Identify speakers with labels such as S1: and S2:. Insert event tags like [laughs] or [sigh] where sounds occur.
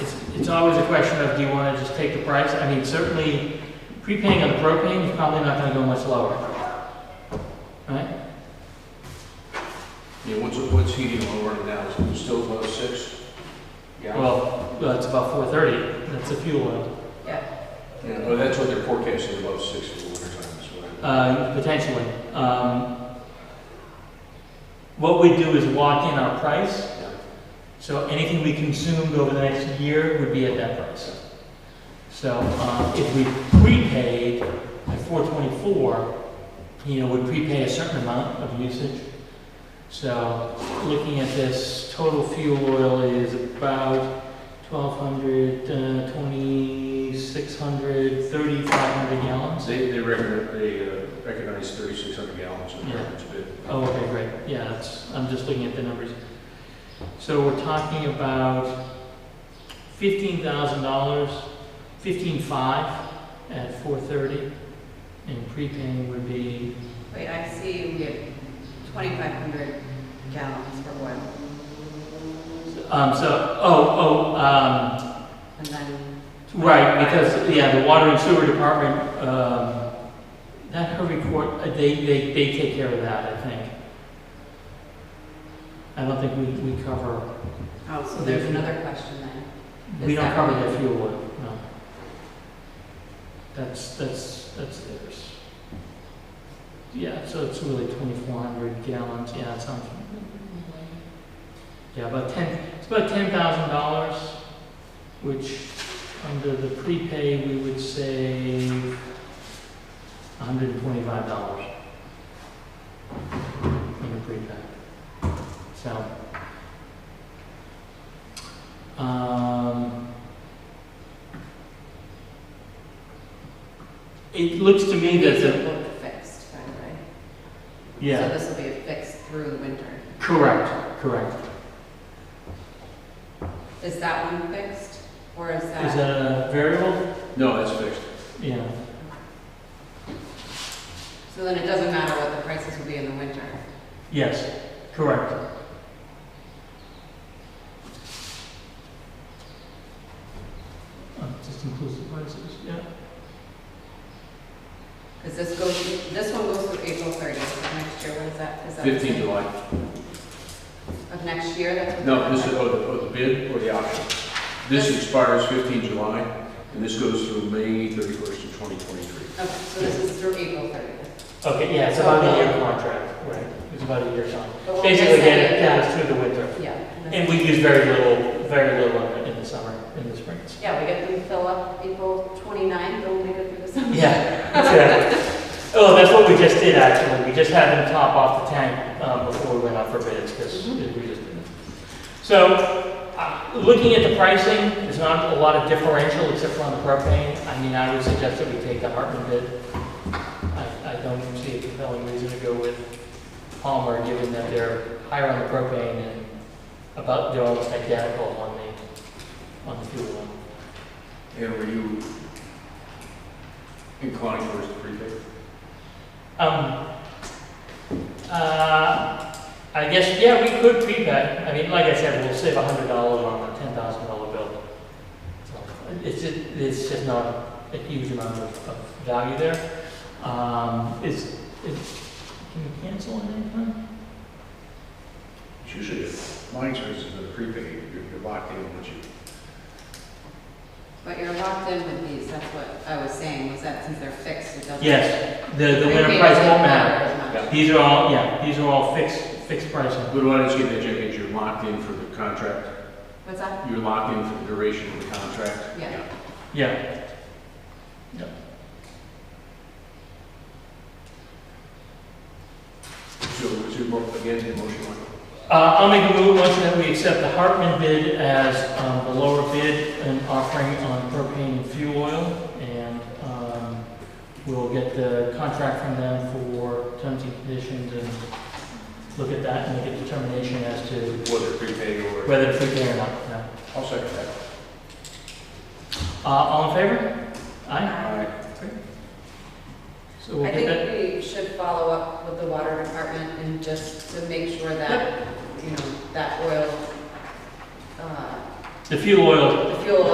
S1: it's always a question of, do you want to just take the price? I mean, certainly, prepaying on the propane is probably not going to go much lower. Right?
S2: Yeah, what's, what's heating oil running now, is it still above six? Yeah.
S1: Well, well, it's about four thirty, that's the fuel oil,
S2: Yeah, well, that's what they're forecasting, above six in the winter time, is what I.
S1: uh, potentially. Um, What we do is lock in our price, So anything we consumed over the next year would be at that price. So um, if we prepaid at four twenty-four, you know, we prepay a certain amount of usage. So looking at this, total fuel oil is about twelve hundred, uh, twenty-six hundred, thirty-five hundred gallons.
S2: They, they recognize, they uh, recognize thirty-six hundred gallons in the
S1: Yeah.
S2: average bid.
S1: Oh, okay, great, yeah, that's, I'm just looking at the numbers. So we're talking about fifteen thousand dollars, fifteen-five at four thirty, and prepaying would be,
S3: Wait, I see we have 2,500 gallons for oil,
S1: um, so, oh, oh, um,
S3: and then,
S1: right, because, yeah, the water and sewer department, um, that Hervey Court, uh, they, they, they take care of that, I think. I don't think we, we cover,
S3: oh, so there's another question then.
S1: we
S3: Is
S1: don't
S3: that-
S1: cover the fuel oil, no. That's, that's, that's theirs. Yeah, so it's really twenty-four hundred gallons, yeah, it sounds. Yeah, about ten, it's about ten thousand dollars, which under the prepay, we would save hundred and twenty-five dollars. In the prepay. So. Um, It looks to me that
S3: These
S1: the,
S3: are both fixed, by the way. So
S1: yeah,
S3: this will be a fix through the winter.
S1: correct, correct.
S3: Is that one fixed, or is
S1: Is
S3: that?
S1: that a variable?
S2: No, that's fixed.
S1: Yeah.
S3: So then it doesn't matter what the prices will be in the winter.
S1: Yes, correct. Uh, Just includes the prices, yeah.
S3: Because this goes, this one goes through April 30th of next year, what is that? Is that the
S2: Fifteen
S3: same?
S2: July.
S3: Of next year, that's what?
S2: No, this is, oh, the, oh, the bid or the option. This expires fifteen July, and this goes through May thirty-first of twenty twenty-three.
S3: Okay, so this is through April 30th.
S1: Okay, yeah, it's
S3: So-
S1: about a year contract, right, it's about a year contract.
S3: But we'll
S1: Basically,
S3: miss
S1: get
S3: any
S1: it
S3: of
S1: down through the winter.
S3: Yeah.
S1: And we use very little, very little of it in the summer, in the spring.
S3: Yeah, we get them fill up April 29th, they'll make it through the summer.
S1: [laughs] Yeah, exactly. Oh, that's what we just did, actually. We just had them top off the tank um, before we went out for bids, because we just did it. So, uh, looking at the pricing, there's not a lot of differential except for on the propane. I mean, I would suggest that we take the Hartman bid. I, I don't see a compelling reason to go with Palmer, given that they're higher on the propane and about, they're almost identical on the, on the fuel one.
S2: And were you inclined towards the prepaid?
S1: Um, uh, I guess, yeah, we could prepay. I mean, like I said, we'll save a hundred dollars on a ten thousand dollar bill. So It's, just- it's just not a huge amount of, of value there. Um, is, is, can we cancel at any time?
S2: It's usually, my experience is with prepaid, you're- you're locked in once you
S3: But you're locked in with these, that's what I was saying, was that since they're fixed, it doesn't.
S1: Yes, the, the
S3: Prepaid
S1: winter price
S3: doesn't
S1: won't matter.
S3: as much.
S2: Yeah.
S1: These are all, yeah, these are all fixed, fixed pricing.
S2: But why don't you get that, Jack, is you're locked in for the contract,
S3: What's that?
S2: you're locked in for the duration of the contract?
S3: Yeah.
S1: Yeah,
S2: So, is your, mo- again, the motion on?
S1: Uh, I'll make a move, motion that we accept the Hartman bid as um, the lower bid and offering on propane and fuel oil. And um, we'll get the contract from them for terms and conditions and look at that and make a determination as to
S2: Whether prepaid or.
S1: whether to prepay or not. No.
S2: I'll second that.
S1: Uh, All in favor? Aye.
S2: Aye.
S1: So we'll
S3: I
S1: get that.
S3: think we should follow up with the water department and just to make sure that, you know, that oil, uh,
S1: The fuel oil
S3: the fuel